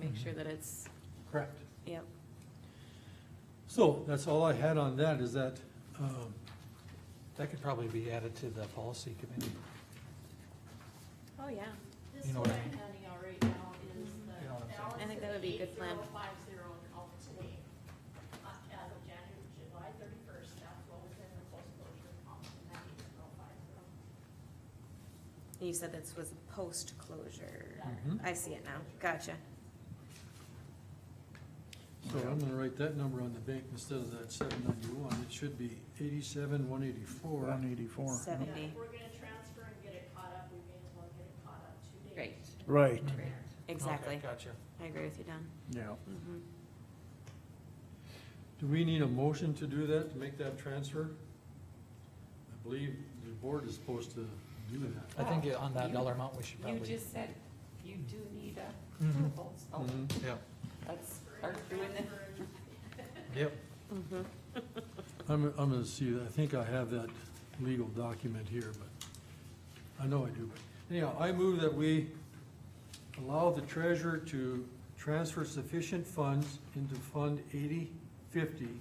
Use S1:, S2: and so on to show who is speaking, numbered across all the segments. S1: make sure that it's,
S2: Correct.
S1: yep.
S2: So that's all I had on that, is that, um, that could probably be added to the policy committee.
S1: Oh, yeah.
S3: This
S2: You know
S3: one
S2: what I
S3: I'm
S2: mean?
S3: handing out right now is
S2: You know what I'm
S3: the
S2: saying.
S3: balance
S1: I think
S3: of
S1: that would be a good plan.
S3: 8050 and all today. Uh, As of January, July thirty-first, that's what was in the post-closure account, and that eight zero five zero.
S1: You said this was post-closure.
S2: Mhm.
S1: I see it now. Gotcha.
S2: So I'm gonna write that number on the bank instead of that seven ninety-one, it should be eighty-seven, one eighty-four.
S4: One eighty-four.
S1: Seven.
S3: Yeah,
S1: Seventy.
S3: if we're gonna transfer and get it caught up, we may as well get it caught up two days.
S1: Great.
S4: Right,
S1: Exactly.
S2: Gotcha.
S1: I agree with you, Don.
S4: yeah.
S1: Mhm.
S2: Do we need a motion to do that, to make that transfer? I believe the board is supposed to do that.
S5: I think on that
S6: You-
S5: dollar amount, we should
S6: You
S5: probably.
S6: just said you do need a
S5: Mhm.
S6: approval, so
S2: Mhm.
S5: Yeah,
S6: let's start doing it.
S5: yep.
S1: Mhm.
S2: I'm, I'm gonna see, I think I have that legal document here, but, I know I do, but anyhow, I move that we allow the treasurer to transfer sufficient funds into Fund eighty fifty.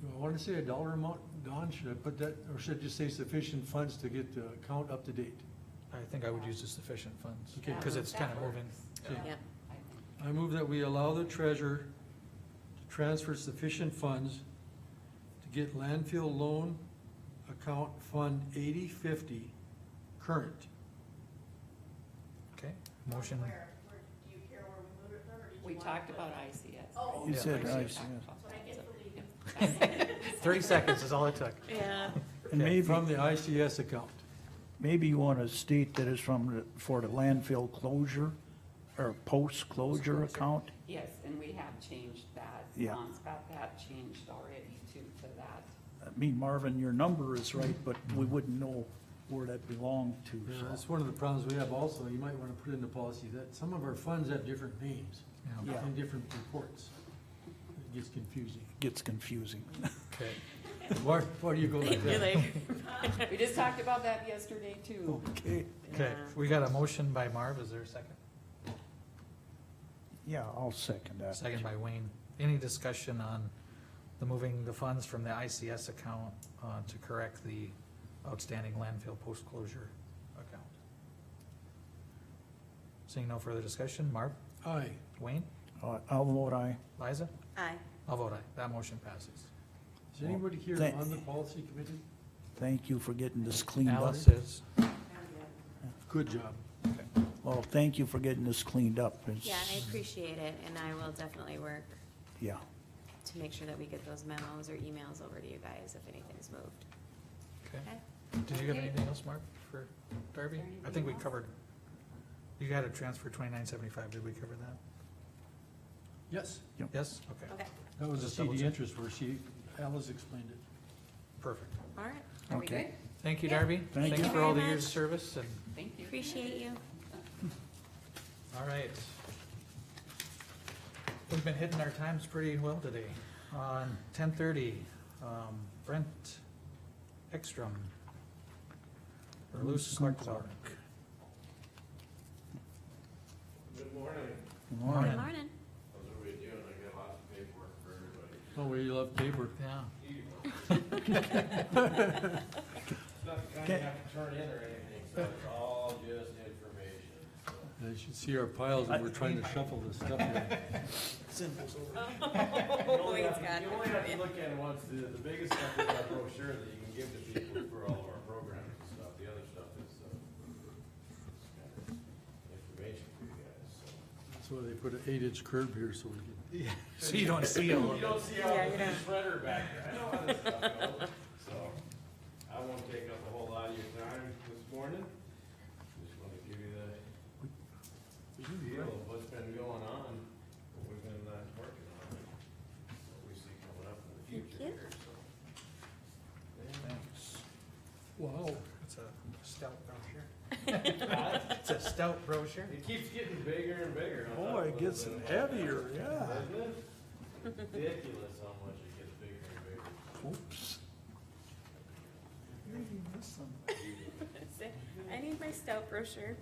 S2: Do I wanna say a dollar amount, Don, should I put that, or should I just say sufficient funds to get the account up to date?
S5: I think I would use the sufficient funds,
S2: Okay.
S5: because it's
S6: That
S5: kind of moving.
S6: works.
S2: Okay.
S1: Yep.
S6: I think.
S2: I move that we allow the treasurer to transfer sufficient funds to get landfill loan account fund eighty fifty current.
S5: Okay, motion,
S3: Where, where, do you care where we move it from, or did you
S6: We
S3: want
S6: talked
S3: to-
S6: about ICS.
S3: Oh.
S4: You
S5: Yeah,
S4: said
S5: I
S4: I
S6: We
S4: see.
S6: talked
S4: yes.
S6: about
S3: So I
S6: that,
S3: get
S6: so-
S3: the lead.
S5: thirty seconds is all it took.
S1: Yeah.
S4: And maybe,
S2: From the ICS account.
S4: maybe you want to state that it's from, the- for the landfill closure or post-closure account.
S6: Yes, and we have changed that.
S4: Yeah.
S6: Lon's got that changed already too, to that.
S4: I mean, Marvin, your number is right, but we wouldn't know where that belonged to,
S2: Mm-hmm. Yeah,
S4: so.
S2: That's one of the problems we have also, you might wanna put in the policy that some of our funds have different names
S5: Yeah.
S4: Yeah.
S2: and different reports. It gets confusing.
S4: Gets confusing.
S5: Okay,
S2: Why, why do you go like
S1: You're
S2: that?
S1: like,
S6: We just talked about that yesterday too.
S4: Okay,
S5: okay,
S1: Yeah.
S5: we got a motion by Marv, is there a second?
S4: yeah, I'll second that.
S5: Second by Wayne. Any discussion on the moving the funds from the ICS account uh, to correct the outstanding landfill post-closure account? Seeing no further discussion, Marv,
S2: Aye.
S5: Wayne,
S4: Uh, I'll vote aye.
S5: Liza,
S1: aye.
S5: I'll vote aye, that motion passes.
S2: Is anybody here
S4: Thank-
S2: on the policy committee?
S4: Thank you for getting this cleaned up.
S5: Alice is,
S2: Good job.
S4: Well, thank you for getting this cleaned up. It's-
S1: Yeah, I appreciate it, and I will definitely work
S4: Yeah,
S1: to make sure that we get those memos or emails over to you guys if anything's moved.
S5: okay.
S1: Okay?
S5: Did you have anything else, Mark, for Darby? I think we
S6: Anything else?
S5: covered, you had a transfer twenty-nine seventy-five, did we cover that?
S2: Yes,
S5: Yes? Okay,
S1: Okay,
S2: that was a
S5: Just double
S2: CD
S5: check.
S2: interest where she, Alice explained it.
S5: perfect.
S1: all right. Are we
S4: okay.
S1: good?
S5: Thank you,
S1: Yeah.
S5: Darby.
S4: Thank
S5: Thanks
S1: you.
S5: for all the
S1: Very
S5: years of
S1: much.
S5: service and,
S6: Thank you.
S1: Appreciate you.
S5: all right. We've been hitting our times pretty well today. On ten thirty, um, Brent Ekstrom. Or Luce Clark.
S7: Good morning.
S4: Good
S1: Good
S4: morning.
S1: morning.
S7: How's everybody doing? I got lots of paperwork for everybody.
S2: Oh, we love paper.
S5: Yeah,
S7: It's not the kind you have to turn in or anything, so it's all just information, so.
S2: You should see our piles that we're trying to shuffle this stuff in.
S7: You only
S1: he's
S7: have-
S1: got
S7: You
S1: it.
S7: only have to look at it once. The, the biggest stuff is our brochure that you can give to people for all of our programs and stuff. The other stuff is, uh, kind of information for you guys, so.
S2: That's why they put an eight-inch curb here so we
S5: so you don't see all
S7: You
S5: of it.
S7: don't see all
S1: Yeah, you
S7: the
S1: don't.
S7: shredder back there, I know how this stuff goes, so, I won't take up a whole lot of your time this morning. Just wanna give you the feel of what's been going on, what we've been, uh, working on, and what we see coming up in the future
S1: Thank you.
S7: here, so.
S5: Thanks.
S2: can. Wow.
S5: It's a stout brochure. It's a stout brochure.
S7: It keeps getting bigger and bigger. on top of the-
S4: yeah.
S7: Isn't it? Ridiculous how much it gets bigger and bigger.
S4: Oops.
S1: I need my priced out brochure.